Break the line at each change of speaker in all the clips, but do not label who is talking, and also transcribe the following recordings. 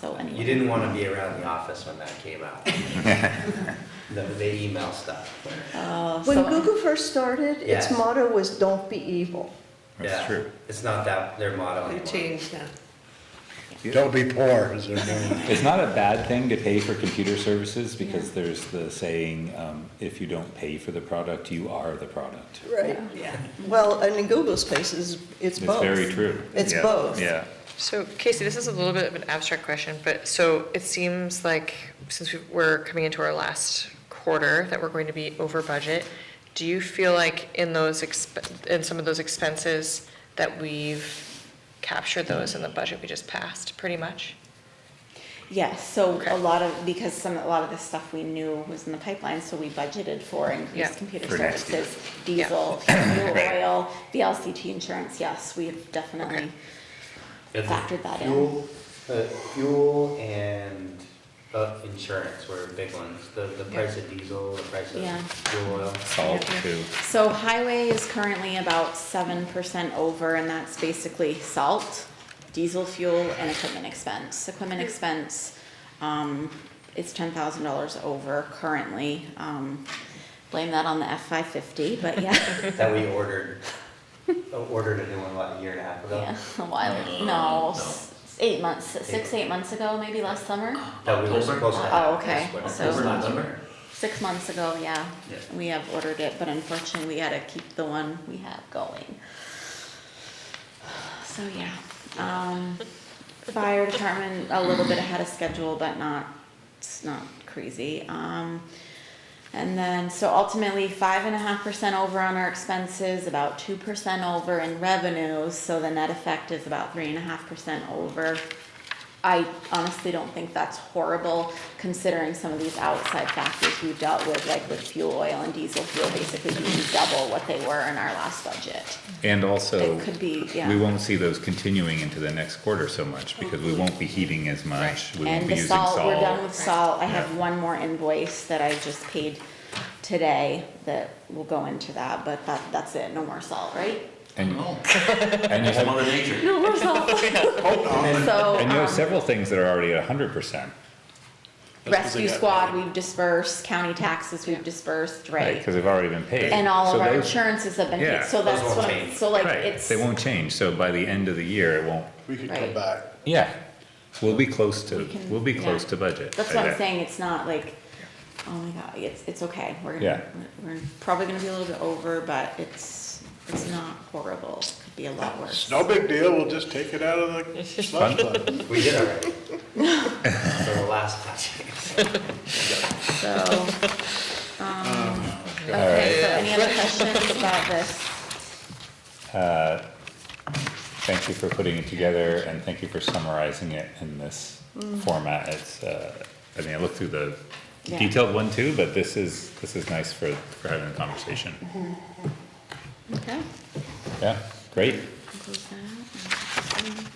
so
You
anyway.
didn't want to be around the office when that came out. The, the email stuff.
Uh,
When
so-
Google first started, its
Yes.
motto was "Don't be evil."
Yeah,
That's true.
It's not that, their motto
They
anymore.
changed that.
Don't be poor, is their new one.
It's not a bad thing to pay for computer services because there's the saying, um, if you don't pay for the product, you are the product.
Right.
Yeah.
Well, and in Google's case, it's, it's
It's
both.
very true.
It's
Yeah,
both.
Yeah.
So Casey, this is a little bit of an abstract question, but so it seems like since we- we're coming into our last quarter, that we're going to be over budget. Do you feel like in those, exp- in some of those expenses, that we've captured those in the budget we just passed, pretty much?
Yes, so
Okay.
a lot of, because some, a lot of the stuff we knew was in the pipeline, so we budgeted for
Yeah.
increased computer
For next year.
services, diesel, fuel oil, VLCT insurance, yes, we've definitely
And
factored that in.
Fuel, uh, fuel and, uh, insurance were big ones. The, the price of diesel, the price
Yeah.
of fuel oil.
Salt too.
So highway is currently about seven percent over, and that's basically salt, diesel fuel, and equipment expense. Equipment expense, um, is ten thousand dollars over currently, um, blame that on the F five fifty, but yeah.
That we ordered, uh, ordered a new one about a year and a half ago.
Yeah, a while. No, s- eight months, six, eight months Uh-huh. ago, maybe last summer.
That we were supposed to have.
Oh, okay.
this winter.
So-
November.
Six months ago, yeah.
Yeah.
We have ordered it, but unfortunately, we had to keep the one we have going. So yeah, um, fire department a little bit ahead of schedule, but not it's not crazy. Um, and then so ultimately five and a half percent over on our expenses, about two percent over in revenues. So the net effect is about three and a half percent over. I honestly don't think that's horrible considering some of these outside factors we dealt with, like with fuel oil and diesel fuel basically being double what they were in our last budget.
And also,
It could be, yeah.
we won't see those continuing into the next quarter so much because we won't be heating as much. We won't
And
be
the
using
salt,
salt.
we're done with salt, I have
Yeah.
one more invoice that I just paid today that will go into that, but that, that's it, no more salt, right?
And,
Oh,
and you
whole
have,
mother nature.
No more salt. So,
and you have
um,
several things that are already at hundred percent,
rescue squad, we've dispersed, county taxes, we've dispersed,
right?
right?
Because they've already been paid.
And all
So
of our
those-
insurances have been paid,
Yeah.
so
Those
that's
won't
what, I'm-
change.
so like
Right,
it's.
They won't change, so by the end of the year, it won't,
We could
Right.
come back.
yeah, we'll be close
We
to,
can-
we'll be
yeah.
close to budget.
That's
I
what I'm
bet.
saying, it's not like, oh my god, it's, it's okay, we're
Yeah.
gonna, we're probably gonna be a little bit over, but it's, it's not horrible, It could be a lot worse.
It's no big deal, we'll just take it out of the slush fund.
We did already. So the last time.
So, um,
Oh,
okay, so any other questions about this?
Uh, Thank you for putting it together and thank you for summarizing it in this format. It's, uh, I mean, I looked through the
Mm. Yeah.
detailed one too, but this is, this is nice for, for having a conversation.
Mm-hmm. Okay.
Yeah, great.
close that out and-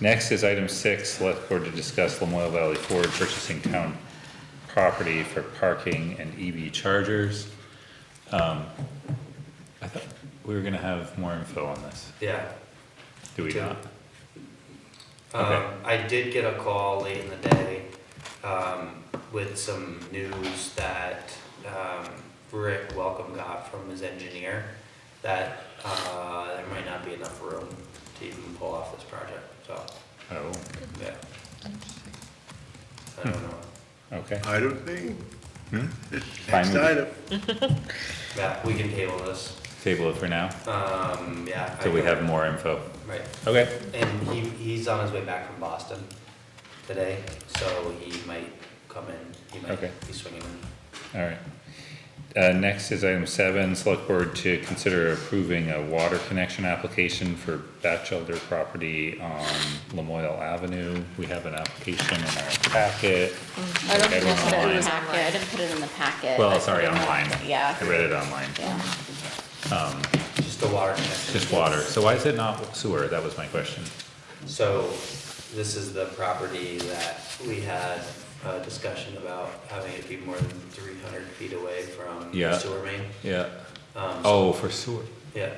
Next is item six, select board to discuss Lamoille Valley Ford purchasing town property for parking and EV chargers. Um, I thought we were gonna have more info on this,
Yeah.
do we not? Okay.
Um, I did get a call late in the day, um, with some news that, um, Rick Welcome got from his engineer, that, uh, there might not be enough room to even pull off this project, so,
Oh,
yeah. I don't know,
okay,
Item B,
Fine
next
with-
item.
yeah, we can table this,
table it for now,
um, yeah. I
till we
don't-
have more info.
Right,
Okay.
and he, he's on his way back from Boston today, so he might come in, he might
Okay.
be swinging in.
All right. Uh, next is item seven, select board to consider approving a water connection application for Batchelder property on Lamoille Avenue. We have an application in our packet.
I don't think
Everyone
I put it in
online.
the packet, I didn't put it in the packet. I
Well,
put
sorry,
it in the-
online.
Yeah.
I read it online.
Yeah.
Just the water connection.
Just water. So why is it not sewer? That was my question.
So this is the property that we had a discussion about having it be more than three hundred feet away from the
Yeah.
sewer main.
Yeah.
Um,
Oh, for sewer.
Yeah,